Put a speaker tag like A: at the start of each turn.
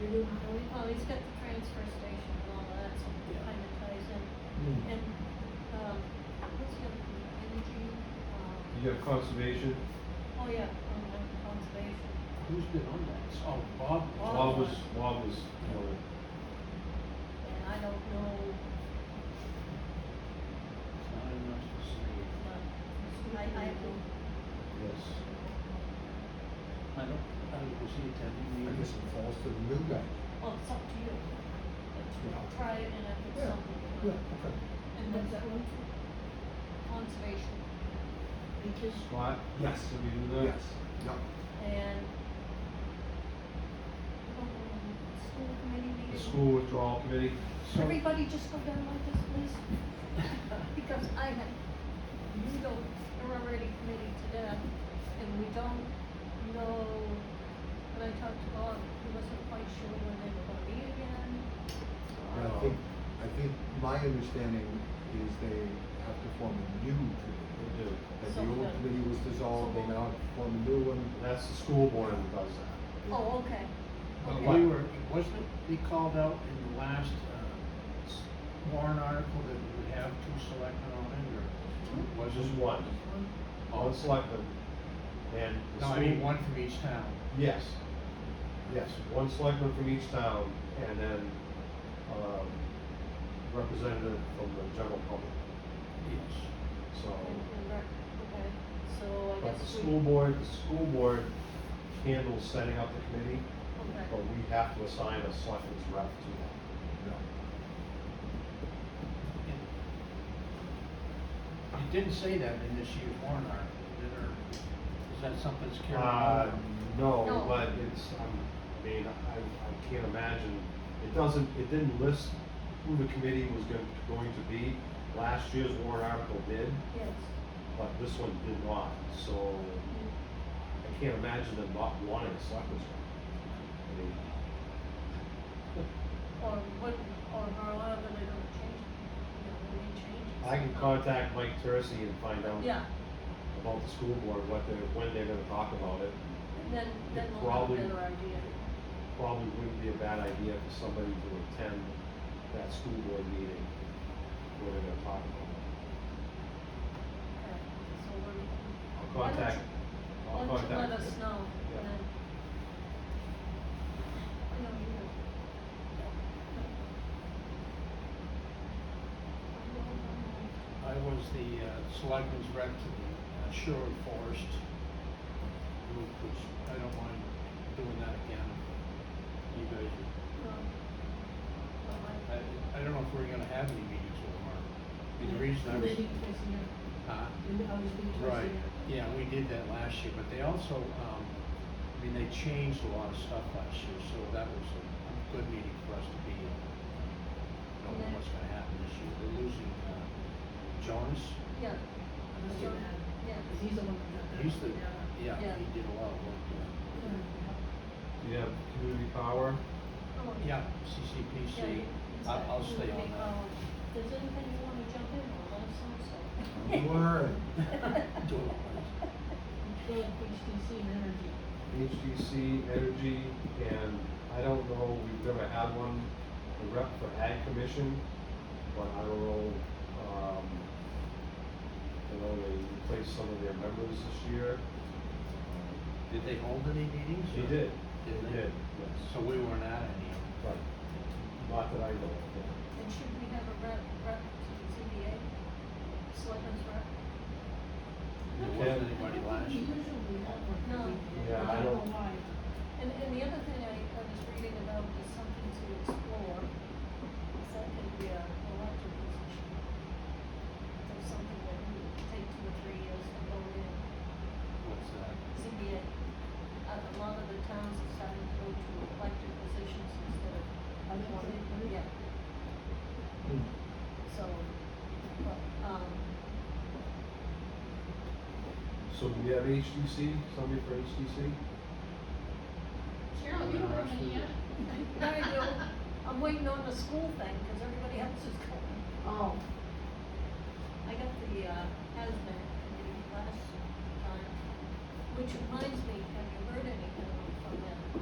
A: You're doing forty?
B: Oh, he's got the transfer station and all that, so it
A: Yeah.
B: kind of ties in.
A: Mm.
B: And, um, what's the other one? energy, um,
C: You got conservation,
B: oh yeah, um, and conservation.
A: Who's been on that? Oh, Bob.
B: Bob.
C: Bob was, Bob was, you know,
B: And I don't know,
A: It's not enough to say.
B: but I, I don't.
C: yes.
A: I don't, I don't see it having
D: I
A: any.
D: guess it falls to the new guy.
B: Well, it's up to you. But
D: Yeah.
B: Try it and if it's
D: Yeah,
B: something. you
D: Yeah,
B: want.
D: okay.
B: And what's that one for? Conservation. Because
C: Scott?
D: Yes.
C: Did we do that?
D: Yes, yeah.
B: and um, school committee meeting.
C: The school withdrawal committee,
A: So-
B: Everybody just go down like this, please, because I have, you go, we're already committed to death, and we don't know, when I talked to Bob, he wasn't quite sure when they were gonna meet again.
D: And I think, I think my understanding is they have to form a new committee.
C: we do.
D: That the old committee was dissolved, they now form a new one.
C: That's the school board who does that.
B: Oh, okay.
A: But
B: Okay.
A: we were, wasn't it, we called out in the last, uh, s- warrant article that we would have two selectmen on it, or?
C: Was
A: was
C: just
A: it-
C: one, on selectmen, and Oh, the
A: No,
C: school.
A: I mean, one from each town.
C: Yes, yes, one selectman from each town, and then, um, representative from the general public,
A: Yes.
C: so.
B: And, and, rec- okay, so I
C: But the
B: guess we.
C: school board, the school board handles setting up the committee,
B: Okay.
C: but we have to assign a selectman's rep to that.
A: It didn't say that in this year's warrant article, did it, or is that something that's carried
C: Uh,
A: over?
C: no,
B: No.
C: but it's, um, I mean, I, I can't imagine, it doesn't, it didn't list who the committee was going, going to be. Last year's warrant article did,
B: Yes.
C: but this one did not, so I can't imagine them not wanting a selectman's rep. I mean,
B: Or what, or how are they gonna change, you know, when they change? it.
C: I can contact Mike Tercey and find out
B: Yeah,
C: about the school board, what they're, when they're gonna talk about it.
B: then, then
C: It
B: we'll have a
C: probably-
B: better idea.
C: Probably wouldn't be a bad idea for somebody to attend that school board meeting where they're gonna talk about it.
B: Okay, So we're,
C: I'll
B: Why don't
C: contact,
B: why
C: I'll
B: don't you let
C: contact.
B: us know,
C: Yeah.
B: and then. I know you will.
A: I was the uh, selectman's rep to the uh, Sherwood Forest group, which I don't mind doing that again. You guys,
B: Well, well, I-
A: I, I don't know if we're gonna have any meetings with them, or, and the reason I was. Huh? Right, yeah, we did that last year, but they also, um, I mean, they changed a lot of stuff last year, so that was a a good meeting for us to be in. I don't know what's gonna happen this year, they're losing, uh, Jonas,
B: Yeah, yeah.
A: he's the, yeah,
B: Yeah.
A: he did a lot of work there.
C: Do you have community power?
B: Oh,
A: Yeah,
B: Yeah,
A: CCPC,
B: you- it's
A: I'll,
B: like
A: I'll
B: you
A: stay
B: make,
A: on that.
B: um, Does anything you wanna jump in on, let us know, so.
D: Learn.
A: Do a lot of it.
C: HDC, energy, and I don't know, we've never had one, the rep for ag commission, but I don't know, um, you know, they replaced some of their members this year.
A: Did they hold any meetings?
C: They
A: or-
C: did,
A: Did
C: they
A: they?
C: did, yes,
A: So we weren't at any of
C: but not that I know of, yeah.
B: And should we have a rep, rep to the ZBA? Selectmen's rep?
A: them, there wasn't anybody last year.
C: Yeah, I don't-
E: why.
B: And, and the other thing I, I was reading about is something to explore. Is that could be a elected position? There's something that would take two or three years to go in.
A: What's that?
B: ZBA, a, a lot of the towns have started to go to elected positions instead of appointed, yeah.
D: Hmm.
B: So, but, um,
C: So do we have HDC, somebody for HDC?
E: Cheryl, you don't have any yet?
B: there you go. I'm waiting on the school thing, cause everybody else is going.
E: Oh.
B: I got the uh, hazmat committee last time, which reminds me, have you heard anything from them?